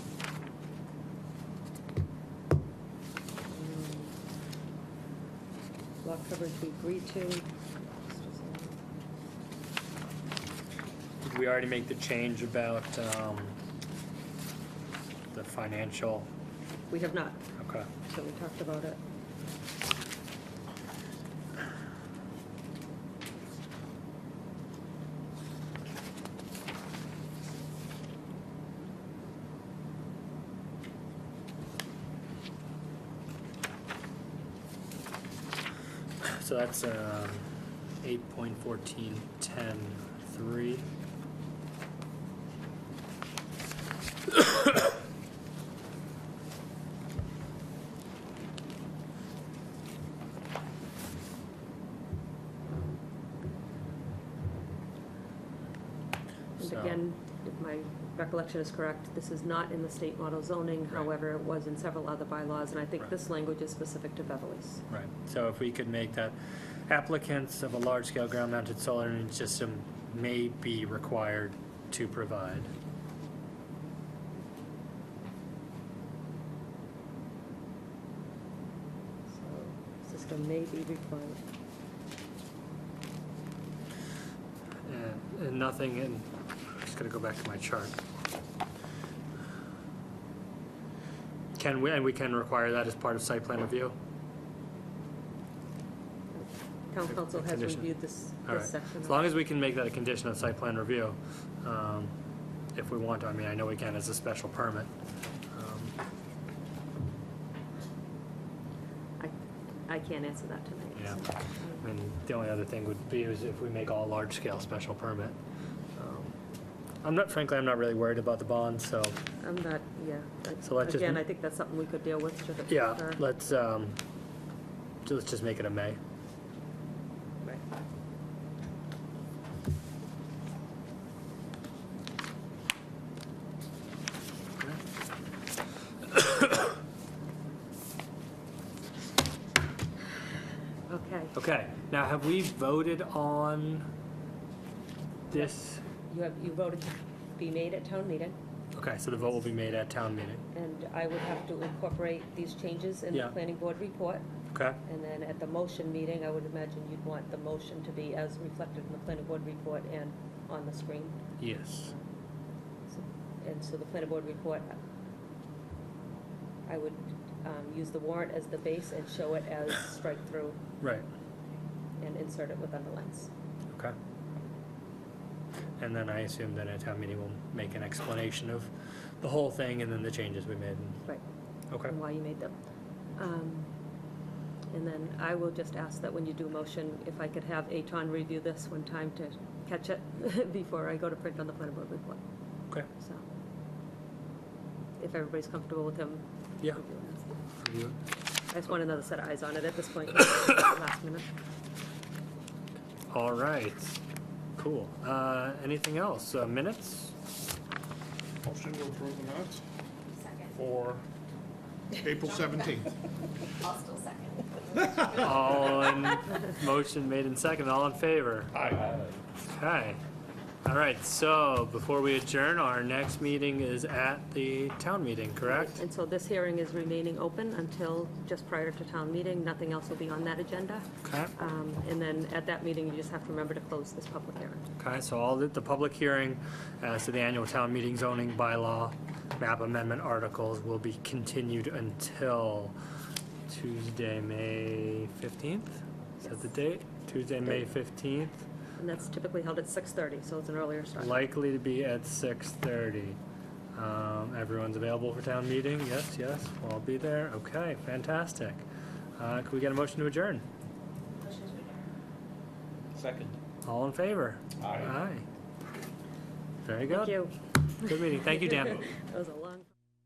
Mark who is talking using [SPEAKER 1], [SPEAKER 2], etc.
[SPEAKER 1] block Mm. coverage we agreed to.
[SPEAKER 2] Did we already make the change about um, the financial?
[SPEAKER 1] We have not,
[SPEAKER 2] Okay.
[SPEAKER 1] so we talked about it.
[SPEAKER 2] So that's um, 8.1410.3.
[SPEAKER 1] And
[SPEAKER 2] So-
[SPEAKER 1] again, if my recollection is correct, this is not in the state model zoning,
[SPEAKER 2] Right.
[SPEAKER 1] however, it was in several other bylaws, and I think
[SPEAKER 2] Right.
[SPEAKER 1] this language is specific to Beverly's.
[SPEAKER 2] Right, so if we could make that applicants of a large-scale ground-mounted solar energy system may be required to provide.
[SPEAKER 1] So, system may be required.
[SPEAKER 2] And, and nothing in, just gotta go back to my chart. Can we, and we can require that as part of site plan review?
[SPEAKER 1] Town council has
[SPEAKER 2] Condition.
[SPEAKER 1] reviewed this,
[SPEAKER 2] All
[SPEAKER 1] this
[SPEAKER 2] right,
[SPEAKER 1] section.
[SPEAKER 2] as long as we can make that a condition of site plan review, um, if we want to, I mean, I know we can as a special permit. Um,
[SPEAKER 1] I, I can't answer that tonight.
[SPEAKER 2] Yeah.
[SPEAKER 1] so, um,
[SPEAKER 2] I mean, the only other thing would be is if we make all large-scale special permit. Um, I'm not, frankly, I'm not really worried about the bond, so,
[SPEAKER 1] I'm not, Um, yeah. but
[SPEAKER 2] So let's just-
[SPEAKER 1] Again, I think that's something we could deal with to the.
[SPEAKER 2] yeah,
[SPEAKER 1] or-
[SPEAKER 2] let's, um, ju- let's just make it a May.
[SPEAKER 1] Right. Okay,
[SPEAKER 2] Okay, now have we voted on this?
[SPEAKER 1] you have, you voted to be made at town meeting,
[SPEAKER 2] Okay, so the vote will be made at town meeting,
[SPEAKER 1] and I would have to incorporate these changes in the
[SPEAKER 2] Yeah.
[SPEAKER 1] planning board report.
[SPEAKER 2] okay?
[SPEAKER 1] And then at the motion meeting, I would imagine you'd want the motion to be as reflected in the planning board report and on the screen.
[SPEAKER 2] Yes.
[SPEAKER 1] So- And so the planning board report, I would um, use the warrant as the base and show it as strike-through
[SPEAKER 2] Right,
[SPEAKER 1] and insert it with underlines.
[SPEAKER 2] okay. And then I assume that at town meeting we'll make an explanation of the whole thing and then the changes we made,
[SPEAKER 1] Right.
[SPEAKER 2] okay?
[SPEAKER 1] And why you made them. Um, And then I will just ask that when you do motion, if I could have Aton review this one time to catch it before I go to print on the planning board report,
[SPEAKER 2] Okay,
[SPEAKER 1] so. If everybody's comfortable with him.
[SPEAKER 2] yeah.
[SPEAKER 1] reviewing this.
[SPEAKER 2] review it.
[SPEAKER 1] I just want another set of eyes on it at this point, last minute.
[SPEAKER 2] All right, cool. Uh, anything else? Uh, minutes?
[SPEAKER 3] Motion to approve the minutes for April 17th.
[SPEAKER 4] I'll still second.
[SPEAKER 2] All in, motion made in second, all in favor?
[SPEAKER 3] Aye.
[SPEAKER 2] Okay. All right, so before we adjourn, our next meeting is at the town meeting, correct?
[SPEAKER 1] And so this hearing is remaining open until just prior to town meeting. Nothing else will be on that agenda.
[SPEAKER 2] Okay,
[SPEAKER 1] Um, And then at that meeting, you just have to remember to close this public hearing.
[SPEAKER 2] okay, so all the, the public hearing as to the annual town meeting zoning bylaw map amendment articles will be continued until Tuesday, May fifteenth? Is that the date? Tuesday, May fifteenth?
[SPEAKER 1] And that's typically held at 6:30, so it's an earlier start.
[SPEAKER 2] Likely to be at six thirty. Um, everyone's available for town meeting? Yes, yes, we'll all be there. Okay, fantastic. Uh, can we get a motion to adjourn?
[SPEAKER 5] Second.
[SPEAKER 2] All in favor?
[SPEAKER 5] Aye.
[SPEAKER 2] Aye. Very good.
[SPEAKER 1] Thank you.
[SPEAKER 2] Good meeting. Thank you, Dan.
[SPEAKER 1] That was a